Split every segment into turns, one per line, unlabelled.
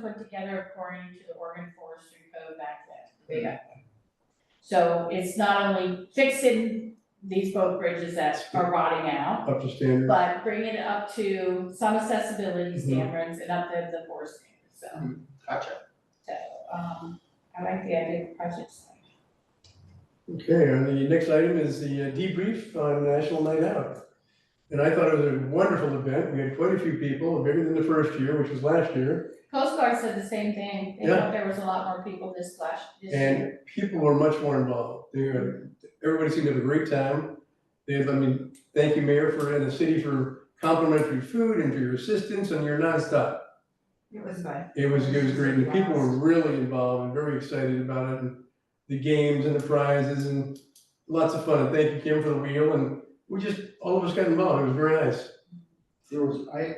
put together according to the Oregon Forestry Code back then. So it's not only fixing these boat bridges that are rotting out,
up to standard.
but bringing it up to some accessibility
Mhm.
standards and up to the forest standards, so,
Gotcha.
so, um, I like the idea of projects.
Okay, and the next item is the uh, debrief on National Night Out. And I thought it was a wonderful event. We had quite a few people, bigger than the first year, which was last year.
Coast Guard said the same thing, they thought there was a lot more people this last, this year.
And people were much more involved. They were, everybody seemed to have a great time. They had, I mean, thank you, Mayor, for, and the city for complimentary food and for your assistance and your nonstop.
It was fun.
It was, it was great, and the people were really involved and very excited about it, and the games and the prizes and lots of fun, and thank you, Kim, for the wheel, and we just, all of us got involved, it was very nice.
There was, I,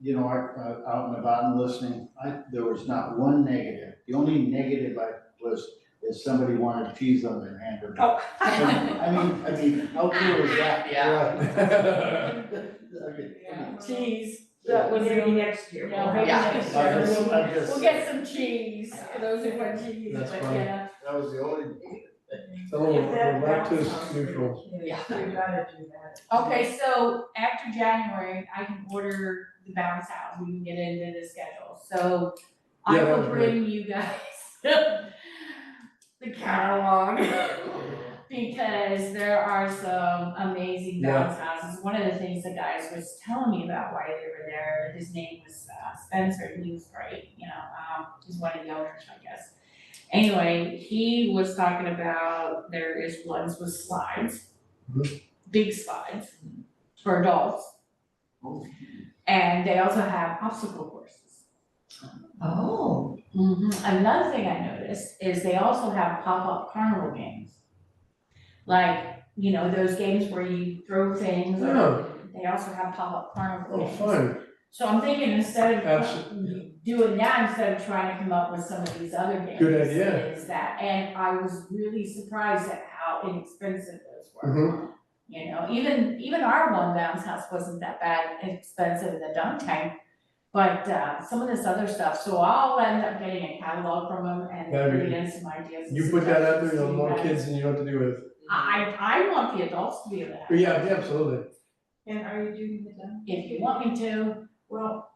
you know, I, uh, out and about and listening, I, there was not one negative. The only negative I was, is somebody wanted cheese on their hand or.
Oh.
I mean, I mean, how cool is that?
Yeah.
I mean,
Yeah, cheese,
That
was
Maybe
the-
next year.
Yeah, maybe
Yeah.
next
I
year.
just- I just-
We'll get some cheese, for those who want cheese,
That's
but
fine.
yeah.
That was the only.
So we're
That- that
lactose
sounds good.
neutral,
Yeah.
We gotta do that.
Okay, so after January, I can order the bounce house, we can get it into the schedule, so I
Yeah, that
will
would be
bring you guys the catalog, because there are some amazing
Yeah.
bounce houses. One of the things the guys was telling me about why they were there, his name was uh, Spencer, and he was great, you know, um, he's one of the owners, I guess. Anyway, he was talking about there is ones with slides big slides for adults.
Oh.
And they also have obstacle courses.
Oh.
Mm-hmm. Another thing I noticed is they also have pop-up carnival games. Like, you know, those games where you throw things, or-
oh,
they also have pop-up carnival
oh,
games.
fun,
So I'm thinking instead
Absolutely.
of doing that, instead of trying to come up with some of these other games.
Good idea.
Is that, and I was really surprised at how inexpensive those were.
Mhm.
You know, even, even our one bounce house wasn't that bad, and expensive in the dunk tank. But, uh, some of this other stuff, so I'll end up getting a catalog from them and
That'd be
bringing in some ideas. and
you put that out there,
suggestions to
you'll have
you
more
guys.
kids than you know what to do with,
I, I want the adults to be able to have
but yeah,
it,
yeah, absolutely,
And are you doing the dunk?
If you want me to,
Well,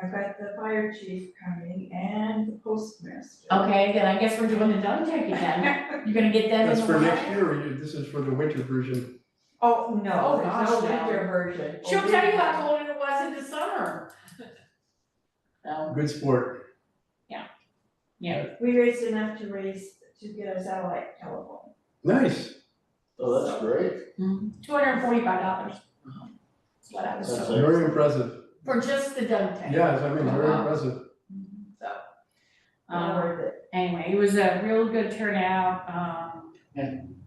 I've got the fire chief coming and the postmaster.
okay, then I guess we're doing the dunk tank again. You're gonna get them in the
that's for next
water?
year, or you- this is for the winter version,
Oh, no,
Oh,
there's
gosh,
no
no.
winter version.
She'll tell you how cold it was in the summer. So,
good sport,
We raised enough to raise, to get a satellite telephone.
nice,
Oh, that's great.
two hundred and forty-five dollars. That's what I was
That's
told,
it.
very impressive,
for just the dunk tank.
yes, I mean, very
Wow.
impressive,
So,
Not
um,
worth it.
anyway, it was a real good turnout, um,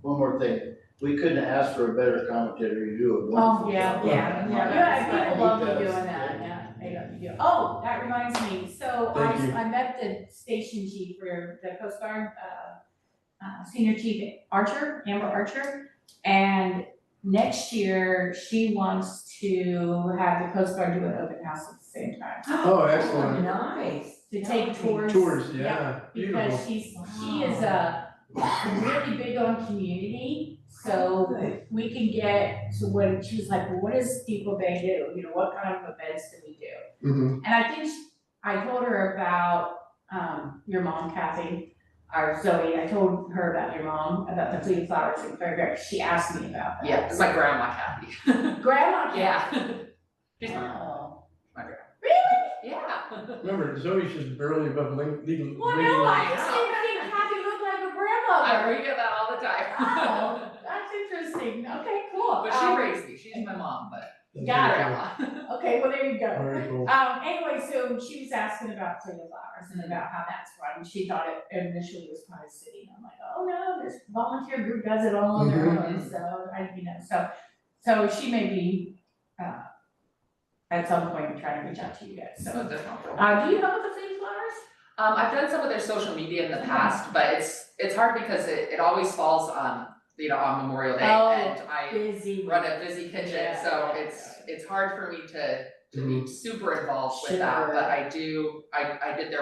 One more thing, we couldn't ask for a better commentator, you do a
oh,
wonderful
yeah,
job.
yeah,
Yeah.
yeah, people love
Yeah.
doing that, yeah, they love you. Oh, that reminds me, so I,
Thank you.
I met the station chief for the Coast Guard, uh, uh, Senior Chief Archer, Amber Archer. And next year, she wants to have the Coast Guard do an open house at the same time,
oh, excellent.
nice.
to take tours.
Tours,
Yep,
yeah, beautiful.
Because she's, she is uh really big on community, so
Good.
we can get to when, she was like, well, what does Depot Bay do? You know, what kind of events do we do?
Mhm.
And I think she- I told her about um your mom, Kathy, or Zoe, I told her about your mom, about the fleet flowers and fairgrounds, she asked me about that.
Yeah, it's my grandma Kathy.
Grandma, Kathy.
Yeah. She's my,
Wow.
my grandma.
Really?
Yeah.
Remember, Zoe's just barely above ling- legal.
Well,
legal
no, I
age.
just didn't think Kathy looked like a
I
grandmother.
read about that all the
Wow,
time.
that's interesting, okay, cool.
But
Um,
she raised me, she's my mom, but
That's
Got
very
grandma.
Okay, well, there you go.
cool. Very cool.
Um, anyway, so she was asking about Play the Flowers and about how that's run. She thought it initially was kind of city. I'm like, oh no, this volunteer group does it all on their own, so I, you know, so, so she may be, uh, at some point trying to reach out to you guys,
So
so.
different.
Uh, do you know the Play the Flowers?
Um, I've done some of their social media in the past, but it's, it's hard because it, it always falls, um, you know, on Memorial Day
Oh.
and I
Busy.
run a busy kitchen,
Yeah,
so
yeah,
it's, it's hard for me to, to
Mhm.
be super involved with that,
Sure.
but I do, I, I did their